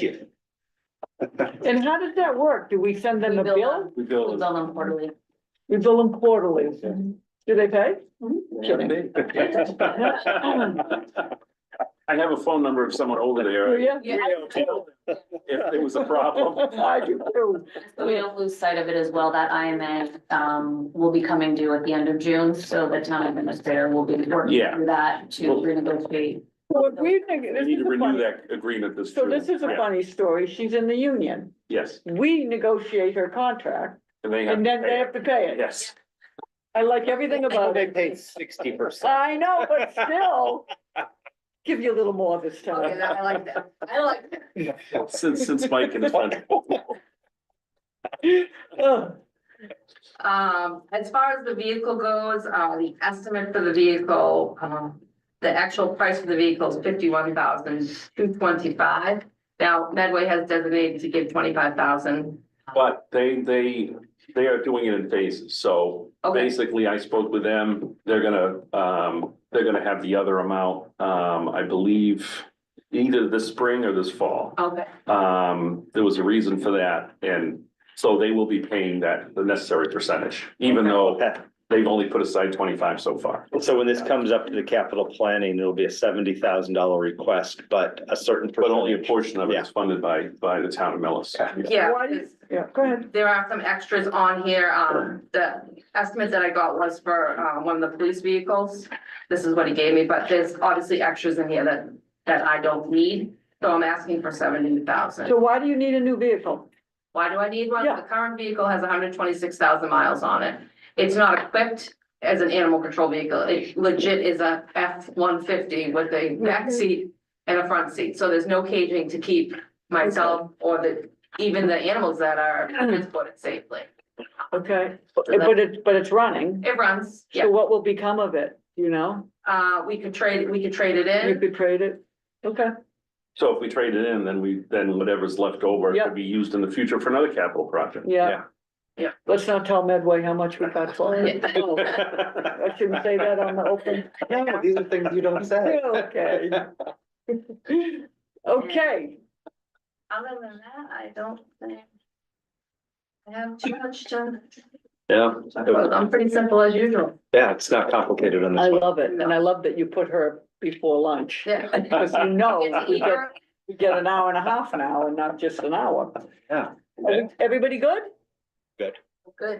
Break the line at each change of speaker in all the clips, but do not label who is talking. you.
And how does that work? Do we send them
We
a
bill
bill?
them.
We
We'll
build.
bill them quarterly.
We bill them quarterly.
Mm-hmm.
Do they pay? Kidding.
I have a phone number of someone over
Do
there.
you?
Yeah.
If there was a problem.
I do too.
So we don't lose sight of it as well, that IMA um will be coming due at the end of June, so the town administrator will be working
Yeah.
through that to
Well-
renegotiate.
So if we think,
They
this
need
is
to
a
renew
funny,
that agreement this.
so this
June.
is a
Yeah.
funny story. She's in the union.
Yes,
We negotiate her contract
and they have.
and
to
then
pay
they
it.
have to pay it.
Yes,
I like everything about
They
it.
paid sixty percent.
I know, but still, give you a little more this time.
I like that. I like that.
since, since Mike and his friend.
Ugh.
Um, as far as the vehicle goes, uh, the estimate for the vehicle, um, the actual price for the vehicle is fifty-one thousand two twenty-five. Now, Medway has designated to give twenty-five thousand.
But they, they, they are doing it in phases, so
Okay.
basically I spoke with them, they're gonna, um, they're gonna have the other amount, um, I believe. Either this spring or this fall,
Okay.
um, there was a reason for that, and so they will be paying that, the necessary percentage. Even though they've only put aside twenty-five so far,
So when this comes up to the capital planning, it'll be a seventy thousand dollar request, but a certain.
but only a
percentage-
portion of it is funded by, by the town of Millis.
Yeah,
Why do you- Yeah, go ahead.
there are some extras on here. Um, the estimate that I got was for, uh, one of the police vehicles. This is what he gave me, but there's obviously extras in here that, that I don't need, so I'm asking for seventy thousand.
So why do you need a new vehicle?
Why do I need one?
Yeah.
The current vehicle has hundred twenty-six thousand miles on it. It's not equipped as an animal control vehicle. It legit is a F one fifty with a back seat and a front seat, so there's no caging to keep myself or the, even the animals that are transported safely.
Okay, but it's, but it's running.
It runs,
So
yeah.
what will become of it, you know?
Uh, we could trade, we could trade it
You
in.
could trade it. Okay,
So if we trade it in, then we, then whatever's left over
Yep.
could be used in the future for another capital project.
Yeah.
Yeah.
let's not tell Medway how much we got for it. No,
Yeah.
I shouldn't say that on the open.
No, these are things you don't say.
Okay. Okay,
Other than that, I don't think I have too much to,
Yeah,
I'm pretty simple as usual.
yeah, it's not complicated on
I
this one.
love it. And I love that you put her before lunch.
Yeah.
Cause you know,
It's
we get,
either-
we get an hour and a half now and not just an hour.
Yeah.
Every- Everybody good?
Good.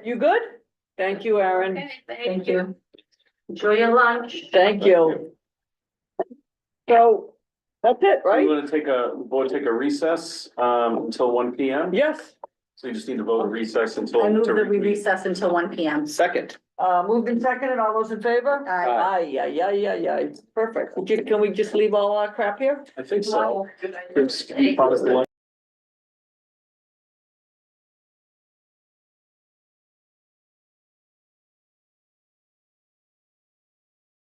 You good? Thank you, Aaron.
Okay, Thank you. Enjoy your lunch.
Thank you. So, that's it,
We
right?
want to take a, we'll take a recess um until one P M.
Yes,
So you just need to vote recess until.
I move
to
that we
reconvene.
recess until one P M.
Second,
uh, moved and seconded, all those in favor?
Uh,
Aye, aye, aye, aye, aye, perfect. Ju- Can we just leave all our crap here?
I think so. It's- we promised the